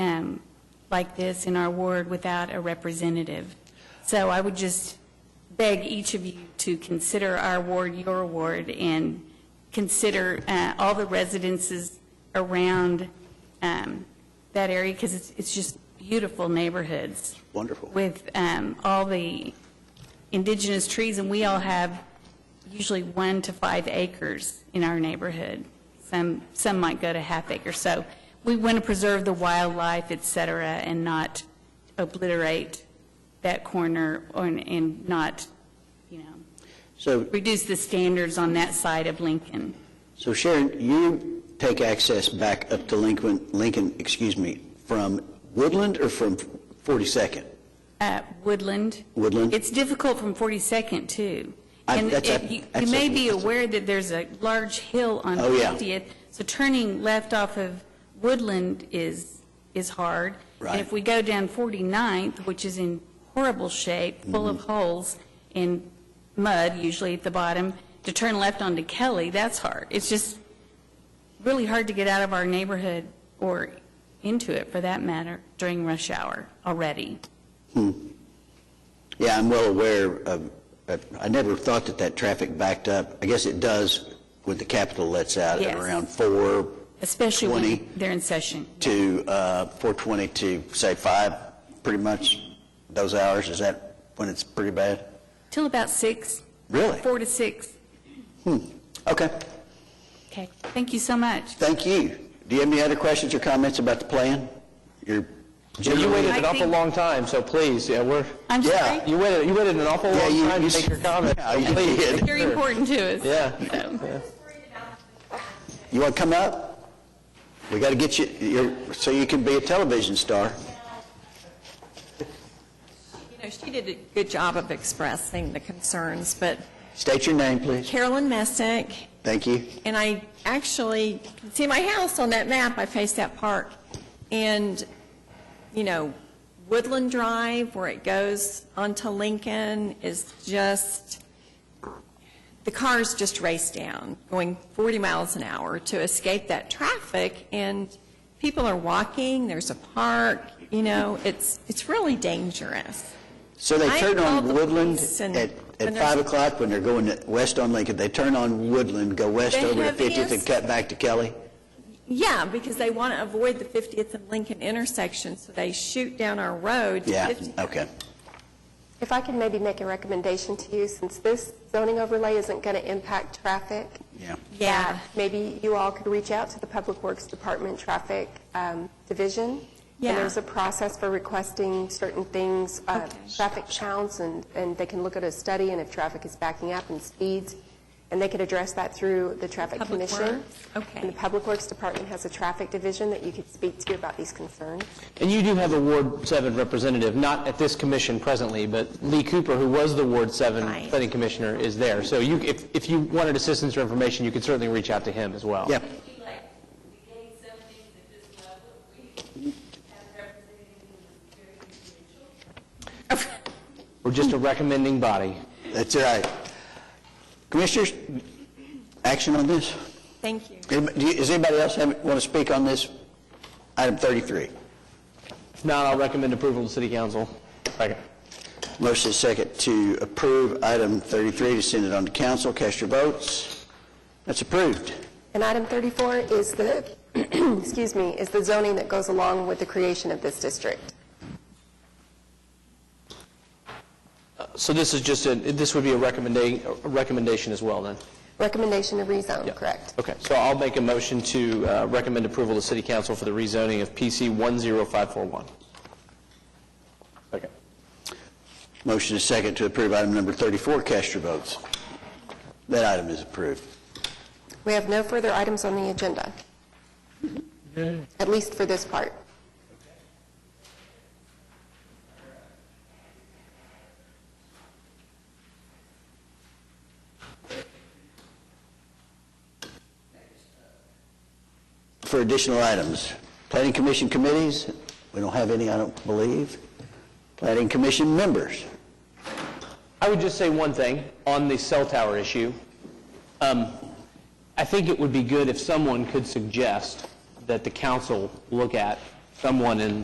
um, like this in our ward without a representative. So I would just beg each of you to consider our ward your ward and consider uh, all the residences around um, that area, because it's it's just beautiful neighborhoods. Wonderful. With um, all the indigenous trees, and we all have usually one to five acres in our neighborhood. Some, some might go to half acre. So we want to preserve the wildlife, et cetera, and not obliterate that corner or- and not, you know, So, reduce the standards on that side of Lincoln. so Sharon, you take access back up to Lincoln, Lincoln, excuse me, from Woodland or from 42nd? Uh, Woodland. Woodland? It's difficult from 42nd, too. I- And that's it- a- you you that's may a- be aware that there's a large hill on Oh, yeah. 50th, so turning left off of Woodland is, is hard. Right. And if we go down 49th, which is in horrible shape, full of Mm-hmm. holes and mud usually at the bottom, to turn left onto Kelly, that's hard. It's just really hard to get out of our neighborhood or into it, for that matter, during rush hour already. Yeah, I'm well aware of, of- I never thought that that traffic backed up. I guess it does with the capital lets out at Yes. around 4 Especially 20. when they're in session. to, uh, 420 to, say, 5, pretty much, those hours, is that when it's pretty bad? Till about six, Really? four to six. Okay, Okay, thank you so much. thank you. Do you have any other questions or comments about the plan? You're Well, you waited an I awful think- long time, so please, yeah, we're, I'm Yeah. sorry, you waited, you waited an awful Yeah, long you- time you to make your s- comment. Yeah, you Please, did. make very sure. important to us. Yeah. So, You want to come up? We got to get you, you're- so you can be a television star. You know, she did a good job of expressing the concerns, but State your name, please. Carolyn Messick, Thank you. and I actually can see my house on that map. I face that park. And, you know, Woodland Drive, where it goes onto Lincoln, is just, the cars just race down, going 40 miles an hour to escape that traffic. And people are walking, there's a park, you know, it's, it's really dangerous. So they I turn called on the Woodland police and- at, at 5 and there's- o'clock when they're going to- west on Lincoln. They turn on Woodland, go west They over to have 50th and yes. cut back to Kelly? Yeah, because they want to avoid the 50th and Lincoln intersection, so they shoot down our road to Yeah, 50. okay. If I could maybe make a recommendation to you, since this zoning overlay isn't going to impact traffic, uh, Yeah. Yeah, maybe you all could reach out to the Public Works Department Traffic um, Division. Yeah. And there's a process for requesting certain things, uh, traffic counts, and, and they can look at a study, and if traffic is backing up and speeds, and they could address that through the Traffic Public Commission. Works, okay. And the Public Works Department has a traffic division that you could speak to about these concerns. And you do have a Ward 7 representative, not at this commission presently, but Lee Cooper, who was the Ward 7 Right. planning commissioner, is there. So you, if, if you wanted assistance or information, you could certainly reach out to him as well. Yeah, We're just a recommending body. that's all right. Commissioners, action on this? thank you. Anybody- do you- Does anybody else want to speak on this? Item 33. If not, I'll recommend approval to City Council. Second. Motion is second to approve item 33, to send it on to council. Cast your votes. That's approved. And item 34 is the, excuse me, is the zoning that goes along with the creation of this district. Uh, So this is just a, this would be a recommendation, a recommendation as well, then? Recommendation to Yeah. rezone, Oh, correct? Okay, so I'll make a motion to uh, recommend approval to City Council for the rezoning of PC 10541. Okay. Motion is second to approve item number 34. Cast your votes. That item is approved. We have no further items on the agenda, at least for this part. For additional items, planning commission committees, we don't have any, I don't believe. Planning commission members, I would just say one thing on the cell tower issue. Um, I think it would be good if someone could suggest that the council look at someone in